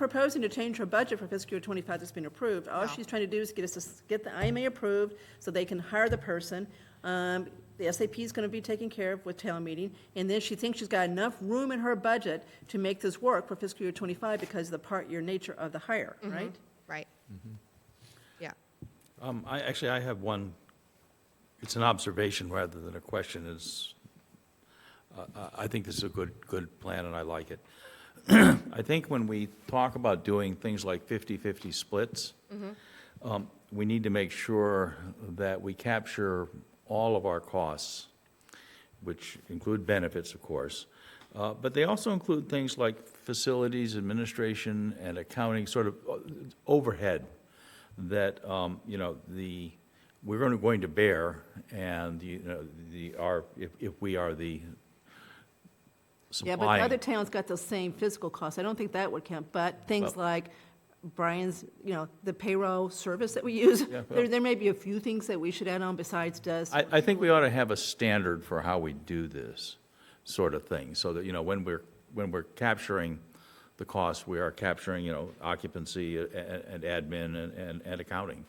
proposing to change her budget for fiscal year twenty-five that's been approved. All she's trying to do is get us, to s- get the IMA approved so they can hire the person. Um, the SAP is gonna be taken care of with town meeting, and then she thinks she's got enough room in her budget to make this work for fiscal year twenty-five because of the part-year nature of the hire, right? right? Mm-hmm. Yeah, Um, I, actually, I have one, it's an observation rather than a question, is, uh, I- I think this is a good, good plan, and I like it. I think when we talk about doing things like 50/50 splits, Mm-hmm. um, we need to make sure that we capture all of our costs, which include benefits, of course, uh, but they also include things like facilities, administration, and accounting, sort of uh, overhead that, um, you know, the, we're going to, going to bear, and, you know, the, our, if, if we are the Yeah, supplying. but other towns got those same physical costs. I don't think that would count, but things Well- like Brian's, you know, the payroll service that we use, Yeah, there, well- there may be a few things that we should add on besides does. I, I think we ought to have a standard for how we do this sort of thing, so that, you know, when we're, when we're capturing the cost, we are capturing, you know, occupancy and, and admin and- and, and accounting.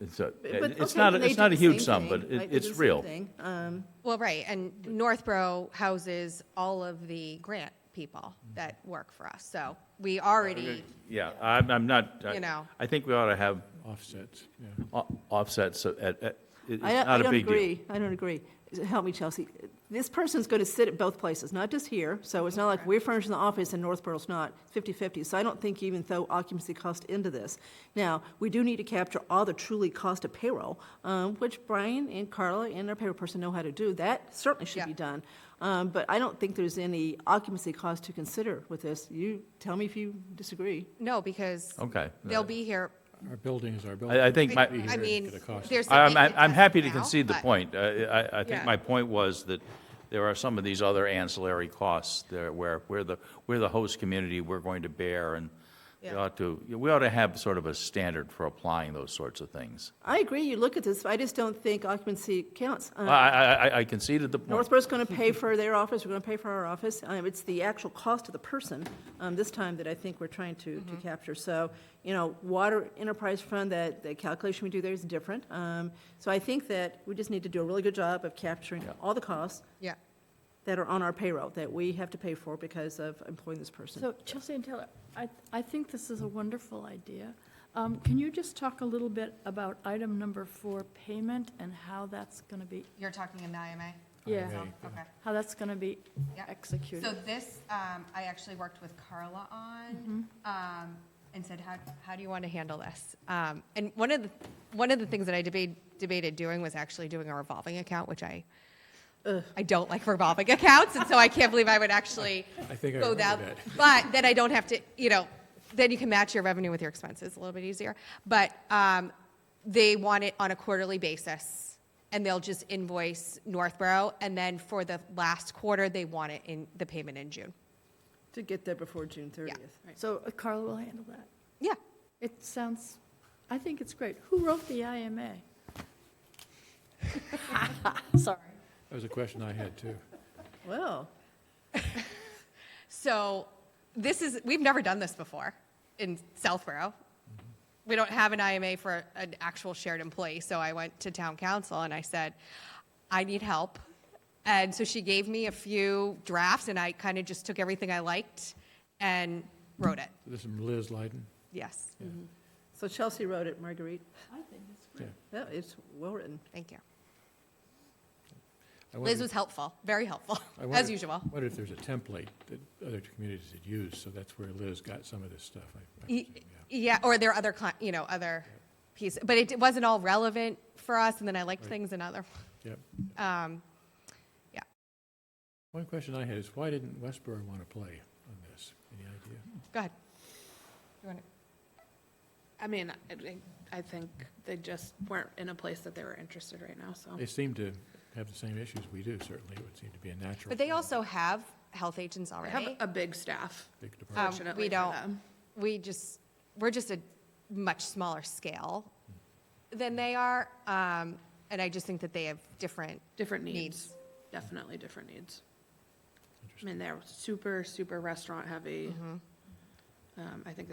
It's a, But, it's okay, not, they it's do not a the huge same sum, thing. but I it, do the it's same real. thing. Um, well, right, and Northborough houses all of the grant people Mm-hmm. that work for us, so we already, Yeah, I'm, I'm not, You I, know. I think we ought to have Offsets, yeah. o- offsets at, at, it- it's I don't, not I a don't big deal. agree. I don't agree. Help me, Chelsea. This person's going to sit at both places, not just here. So it's not like we're furnishing the office and Northborough's not, 50/50. So I don't think you even throw occupancy cost into this. Now, we do need to capture all the truly cost of payroll, um, which Brian and Carla and our payroll person know how to do. That certainly should be Yeah. done. Um, But I don't think there's any occupancy cost to consider with this. You, tell me if you disagree. no, because Okay. they'll be here. Our buildings, our buildings. I, I think my. I mean, At a cost. there's. I'm, significant I'm I'm happy to costs now, concede the but- point. I- I, I think Yeah. my point was that there are some of these other ancillary costs there where, where the, where the host community, we're going to bear, and we Yeah. ought to, we ought to have sort of a standard for applying those sorts of things. I agree, you look at this, I just don't think occupancy counts. Uh. Um, I, I, I- I conceded the point. Northborough's going to pay for their office, we're going to pay for our office. Um, It's the actual cost of the person um, this time that I think we're trying to, Mm-hmm. to capture. So, you know, water enterprise fund, that, the calculation we do there is different. Um, So I think that we just need to do a really good job of capturing all the costs Yeah, that are on our payroll that we have to pay for because of employing this person. So Chelsea and Taylor, I, I think this is a wonderful idea. Um, Can you just talk a little bit about item number four, payment, and how that's going to be, you're talking in the IMA? yeah, Right. Okay. how that's going to be Yeah. So executed? this, um, I actually worked with Carla on, um, and said, how, how do you want to handle this? Um, and one of the, one of the things that I debated, debated doing was actually doing a revolving account, which I, I don't like revolving accounts, and so I can't believe I would actually I think I go remember that. that. But then I don't have to, you know, then you can match your revenue with your expenses a little bit easier. But, um, they want it on a quarterly basis, and they'll just invoice Northborough, and then for the last quarter, they want it in, the payment in June. To get there before June 30th. So uh, Carla will handle that. Yeah, It sounds, I think it's great. Who wrote the IMA? Sorry. That was a question I had too. Well, so this is, we've never done this before in Southborough. We don't have an IMA for an actual shared employee, so I went to town council and I said, I need help. And so she gave me a few drafts, and I kind of just took everything I liked and wrote it, This is from Liz Lyden. yes, so Chelsea wrote it, Marguerite. I think it's Yeah. great. Yeah, it's well-written. thank you. I Liz wondered- was helpful, very helpful, I wondered- as usual. wondered if there's a template that other communities had used, so that's where Liz got some of this stuff. I- I Y- presume, yeah. E, Yeah, or there are other, cli- you know, other pieces, but it wasn't all relevant for us, and then I liked Right. things in other, Yep. um, One question I had is why didn't Westboro want to play on this? Any idea? go ahead. I mean, I think- I think they just weren't in a place that they were interested right now, so. They seem to have the same issues we do, certainly. It would seem to be a natural. But they for a also have health agents They have uh, already. a big staff, big department. Um, fortunately We for don't, them. we just, we're just a much smaller scale than they are, um, and I just think that they have different, Different Needs. needs, definitely different needs. I mean, they're super, super restaurant heavy. Mm-hmm. Um, I think